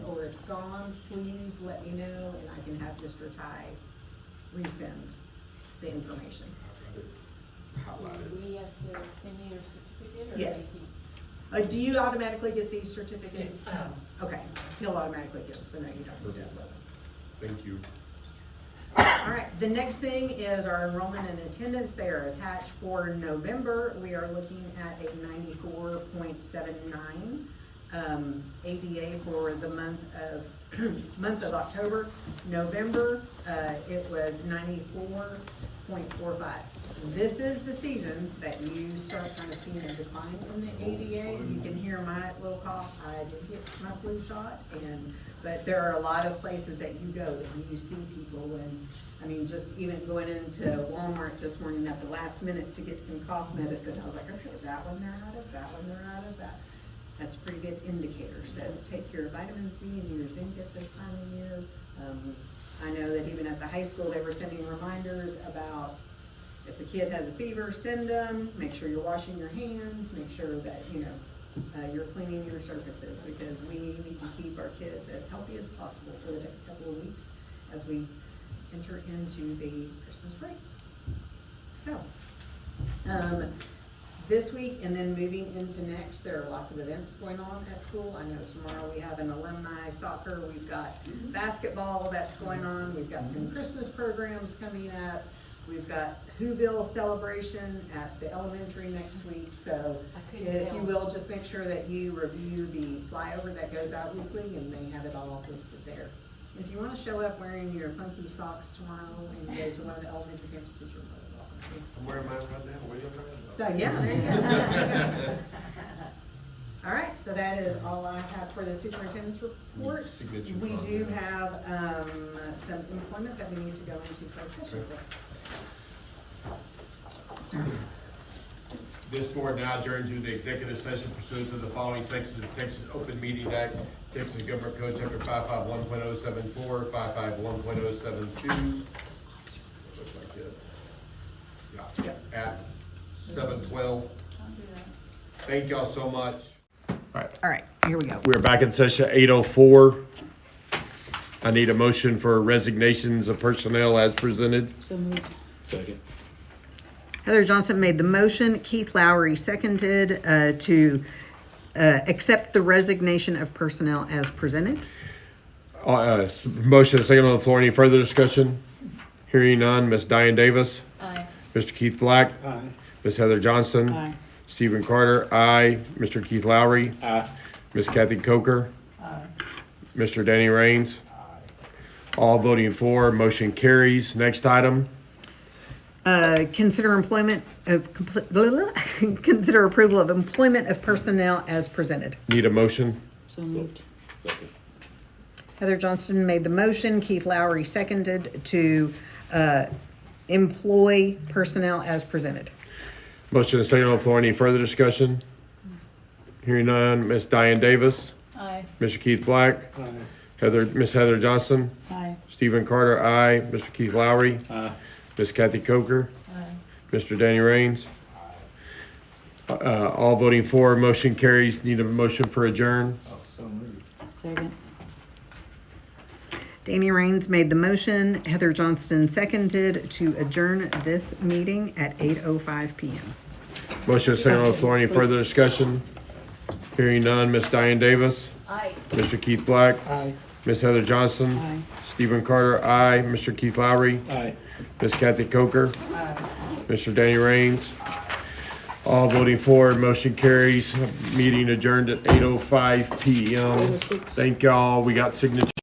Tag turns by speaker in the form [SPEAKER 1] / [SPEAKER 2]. [SPEAKER 1] gone, please let me know and I can have Mr. Ty resend the information.
[SPEAKER 2] Do
[SPEAKER 3] Highlighted.
[SPEAKER 2] we have to send you your certificate or?
[SPEAKER 1] Yes.
[SPEAKER 2] anything?
[SPEAKER 1] Uh, do you automatically get these certificates?
[SPEAKER 4] Um,
[SPEAKER 1] Okay, he'll automatically get them, so no, you don't need to upload them.
[SPEAKER 3] Thank you.
[SPEAKER 1] All right, the next thing is our enrollment and attendance. They are attached for November. We are looking at a ninety-four point seven nine um, ADA for the month of, month of October. November, uh, it was ninety-four point four five. This is the season that you start kind of seeing a decline in the ADA. You can hear my little cough. I did get my flu shot and, but there are a lot of places that you go that you see people and, I mean, just even going into Walmart this morning at the last minute to get some cough medicine, I was like, okay, that one they're out of, that one they're out of, that. That's a pretty good indicator, so take your vitamin C and your zinc at this time of year. Um, I know that even at the high school, they were sending reminders about if the kid has a fever, send them, make sure you're washing your hands, make sure that, you know, uh, you're cleaning your surfaces, because we need to keep our kids as healthy as possible for the next couple of weeks as we enter into the Christmas break. So, um, this week and then moving into next, there are lots of events going on at school. I know tomorrow we have an alumni soccer, we've got
[SPEAKER 2] Mm-hmm.
[SPEAKER 1] basketball that's going on, we've got some Christmas programs coming up. We've got Whoville celebration at the elementary next week, so
[SPEAKER 2] I couldn't
[SPEAKER 1] if you
[SPEAKER 2] tell.
[SPEAKER 1] will, just make sure that you review the flyover that goes out weekly and they have it all listed there. If you wanna show up wearing your funky socks tomorrow and go to one of the elementary campuses, you're more than welcome to.
[SPEAKER 3] I'm wearing mine right now. What are you talking
[SPEAKER 1] So,
[SPEAKER 3] about?
[SPEAKER 1] yeah, there you go. All right, so that is all I have for the superintendent's report.
[SPEAKER 3] Need signature
[SPEAKER 1] We
[SPEAKER 3] from
[SPEAKER 1] do
[SPEAKER 3] them.
[SPEAKER 1] have, um, some employment that we need to go into closed session
[SPEAKER 3] Okay.
[SPEAKER 1] for.
[SPEAKER 3] This board now adjourns to the executive session pursuant to the following sections of Texas Open Meeting Act, Texas Government Code, Chapter 551.074, 551.072. Looks like it. Yeah,
[SPEAKER 1] Yes.
[SPEAKER 3] at 7:12. Thank y'all so much.
[SPEAKER 1] All right, here we go.
[SPEAKER 3] We're back in session eight oh four. I need a motion for resignations of personnel as presented.
[SPEAKER 1] Heather Johnson made the motion, Keith Lowry seconded, uh, to, uh, accept the resignation of personnel as presented.
[SPEAKER 3] Uh, Uh, s- motion second on the floor. Any further discussion? Hearing none. Miss Diane Davis.
[SPEAKER 2] Aye.
[SPEAKER 3] Mr. Keith Black. Aye. Miss Heather Johnson.
[SPEAKER 4] Aye.
[SPEAKER 3] Stephen Carter. Aye. Mr. Keith Lowry. Aye. Miss Kathy Coker. Aye. Mr. Danny Rains. Aye. All voting for. Motion carries. Next item.
[SPEAKER 1] Uh, consider employment, of compl- blah, blah, blah. consider approval of employment of personnel as presented.
[SPEAKER 3] Need a motion.
[SPEAKER 4] So moved.
[SPEAKER 1] Heather Johnston made the motion, Keith Lowry seconded to uh, employ personnel as presented.
[SPEAKER 3] Motion is second on the floor. Any further discussion? Hearing none. Miss Diane Davis.
[SPEAKER 2] Aye.
[SPEAKER 3] Mr. Keith Black. Heather, Miss Heather Johnson.
[SPEAKER 4] Aye.
[SPEAKER 3] Stephen Carter, aye. Mr. Keith Lowry. Aye. Miss Kathy Coker. Mr. Danny Rains. Uh, all voting for, motion carries. Need a motion for adjourn.
[SPEAKER 4] Second.
[SPEAKER 1] Danny Rains made the motion, Heather Johnston seconded to adjourn this meeting at 8:05 PM.
[SPEAKER 3] Motion is second on the floor. Any further discussion? Hearing none. Miss Diane Davis.
[SPEAKER 2] Aye.
[SPEAKER 3] Mr. Keith Black. Aye. Miss Heather Johnson.
[SPEAKER 4] Aye.
[SPEAKER 3] Stephen Carter, aye. Mr. Keith Lowry. Aye. Miss Kathy Coker. Aye. Mr. Danny Rains. All voting for, motion carries. Meeting adjourned at eight oh five P M.
[SPEAKER 4] 8:06.
[SPEAKER 3] Thank y'all. We got signature.